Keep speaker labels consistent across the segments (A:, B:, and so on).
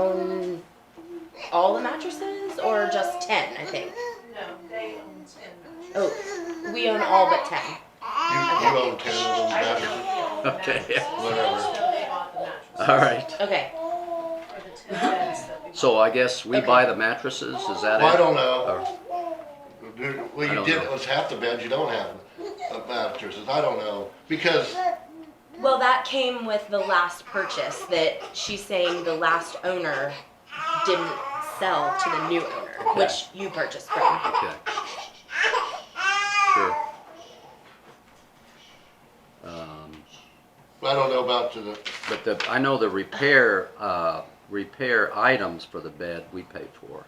A: own all the mattresses or just 10, I think?
B: No, they own ten mattresses.
A: Oh, we own all but 10.
C: You, you own ten of those
B: I don't know if
C: mattresses,
B: they own the
D: Okay.
B: mattresses. I just know they bought the mattresses.
D: All right.
A: Okay.
B: Or the ten beds that we bought.
D: So I guess we
A: Okay.
D: buy the mattresses, is that it? Oh,
C: Well, I don't know.
D: Or-
C: Dude, Well,
D: I
C: you
D: don't
C: did,
D: know.
C: was half the beds you don't have uh, mattresses, I don't know, because
A: Well, that came with the last purchase that she's saying the last owner didn't sell to the new owner, which you purchased from.
D: Okay. Sure. Um,
C: I don't know about to the,
D: But the, I know the repair, uh, repair items for the bed we pay for.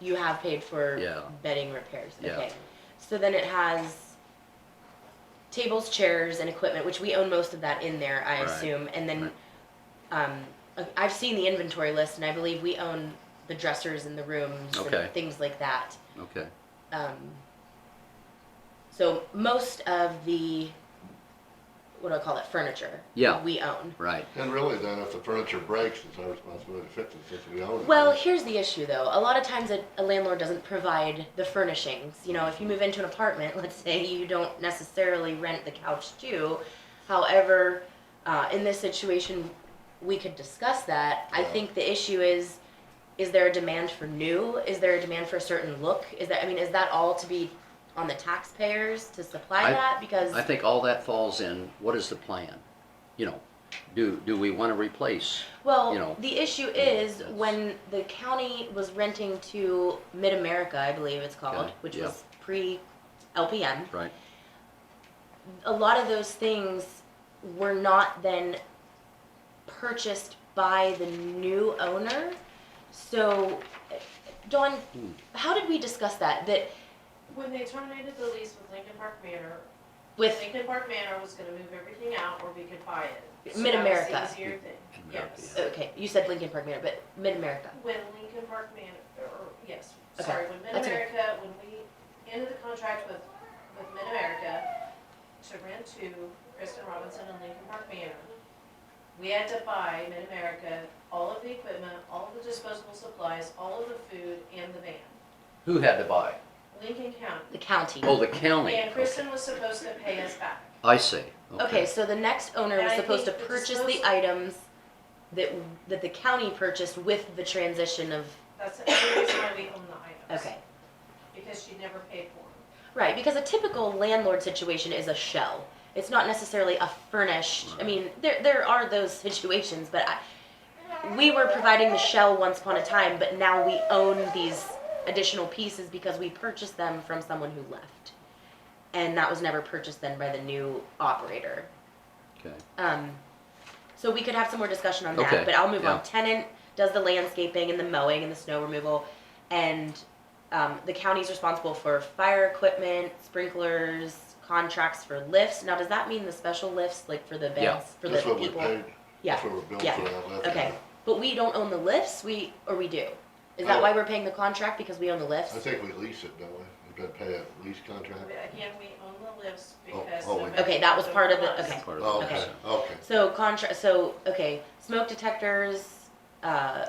A: You have paid for
D: Yeah.
A: bedding repairs.
D: Yeah.
A: Okay. So then it has tables, chairs, and equipment, which we own most of that in there, I
D: Right.
A: assume. And then um, I- I've seen the inventory list, and I believe we own the dressers and the rooms
D: Okay.
A: and things like that.
D: Okay,
A: um, so most of the what do I call it furniture
D: Yeah.
A: we own.
D: right.
C: and really then, if the furniture breaks, it's our responsibility to fix it since we own it.
A: Well, here's the issue though. A lot of times a, a landlord doesn't provide the furnishings. You know, if you move into an apartment, let's say you don't necessarily rent the couch too. However, uh, in this situation, we could discuss that. I
C: Yeah.
A: think the issue is is there a demand for new? Is there a demand for a certain look? Is that I mean, is that all to be on the taxpayers to supply
D: I-
A: that? Because
D: I think all that falls in, what is the plan? You know, do, do we wanna replace?
A: Well,
D: you know,
A: the issue
D: yeah,
A: is
D: that's-
A: when the county was renting to Mid America, I believe it's called,
D: Okay,
A: which
D: yeah.
A: was pre LPM,
D: Right,
A: a lot of those things were not then purchased by the new owner. So, uh, Dawn,
D: Hmm.
A: how did we discuss that? That
B: When they terminated the lease with Lincoln Park Manor,
A: with
B: Lincoln Park Manor was gonna move everything out or we could buy it. So
A: Mid-America.
B: That was the easier thing,
D: Mid-America,
B: yes.
A: okay, you said Lincoln Park Manor, but Mid America.
B: When Lincoln Park Manor, or, yes,
A: Okay,
B: sorry, when
A: that's okay.
B: Mid-America, when we ended the contract with, with Mid-America to rent to Kristen Robinson and Lincoln Park Manor, we had to buy Mid-America all of the equipment, all of the disposable supplies, all of the food, and the van.
D: who had to buy?
B: Lincoln County.
A: The county.
D: Oh, the county.
B: And Kristen was supposed to pay us back.
D: I see,
A: Okay,
D: okay.
A: so the next owner
B: And
A: was
B: I
A: supposed to
B: think the
A: purchase the
B: disposal-
A: items that, that the county purchased with the transition of,
B: That's the only reason why we own the items.
A: okay.
B: Because she never paid for them.
A: Right, because a typical landlord situation is a shell. It's not necessarily a furnished, I mean, there, there are those situations, but I, we were providing the shell once upon a time, but now we own these additional pieces because we purchased them from someone who left. And that was never purchased then by the new operator.
D: Okay,
A: Um, so we could have some more discussion on that,
D: Okay,
A: but I'll move
D: yeah.
A: on. Tenant does the landscaping and the mowing and the snow removal, and um, the county's responsible for fire equipment, sprinklers, contracts for lifts. Now, does that mean the special lifts, like for the bands,
D: Yeah.
A: for
C: That's
A: the
C: what we
A: people?
C: paid,
A: Yeah.
C: that's what we're built
A: yeah,
C: for, I left it.
A: Okay, but we don't own the lifts. We or we do. Is
C: Oh.
A: that why we're paying the contract because we own the lifts?
C: I think we lease it, don't we? We've got to pay a lease contract.
B: But Again, we own the lifts
C: Oh,
B: because.
C: oh, we-
B: nobody
A: Okay, that was
B: paid
A: part of
B: them
A: it,
B: for
A: okay.
B: us.
D: part
C: Oh,
D: of
C: okay,
D: it,
C: okay.
A: So contra so okay, smoke detectors, uh,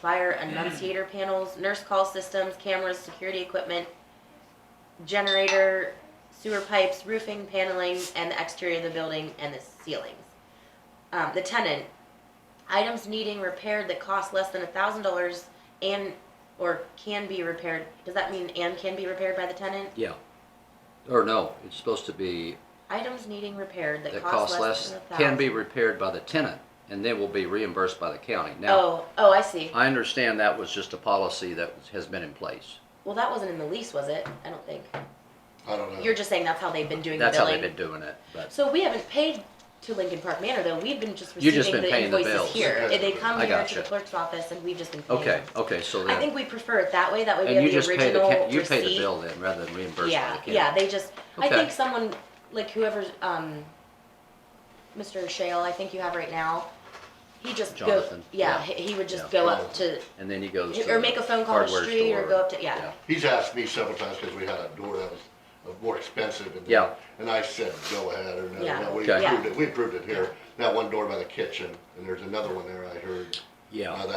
A: fire enunciator panels, nurse call systems, cameras, security equipment, generator, sewer pipes, roofing, paneling, and the exterior of the building and the ceilings. Um, the tenant, items needing repaired that cost less than a thousand dollars and or can be repaired. Does that mean and can be repaired by the tenant?
D: yeah. Or no, it's supposed to be,
A: Items needing repaired that,
D: that costs less,
A: than a thousand.
D: can be repaired by the tenant, and they will be reimbursed by the county. Now,
A: Oh, oh, I see.
D: I understand that was just a policy that was- has been in place.
A: Well, that wasn't in the lease, was it? I don't think.
C: I don't know.
A: You're just saying that's how they've been doing
D: That's
A: the
D: how
A: billing.
D: they've been doing it, but,
A: So we haven't paid to Lincoln Park Manor though. We've been just
D: You've
A: receiving
D: just been
A: the
D: paying the
A: invoices
D: bills.
A: here.
C: Okay.
A: They come
D: I
A: here to
D: gotcha.
A: the clerk's office, and we've just been paying.
D: okay,
A: them.
D: okay, so
A: I
D: then,
A: think we prefer it that way. That way we
D: and
A: have
D: you
A: the
D: just pay the,
A: original
D: ca- you pay the
A: receipt.
D: bill then, rather than reimbursed by the
A: Yeah,
D: county.
A: yeah. They just. I
D: Okay.
A: think someone like whoever's um, Mr. Shale, I think you have right now. He just
D: Jonathan.
A: go. Yeah,
D: Yeah.
A: he he would just
D: Yeah.
A: go up to
D: And then he goes to
A: or
D: the
A: make a phone call to the
D: hardware
A: street or
D: store.
A: go up to yeah.
C: He's asked me several times because we had a door that was uh, more expensive and.
D: Yeah.
C: And I said, go ahead, or no,
A: Yeah.
C: no, we
D: Okay.
C: approved it, we approved it here, that one door by the kitchen, and there's another one there I heard.
D: Yeah.
C: Now, that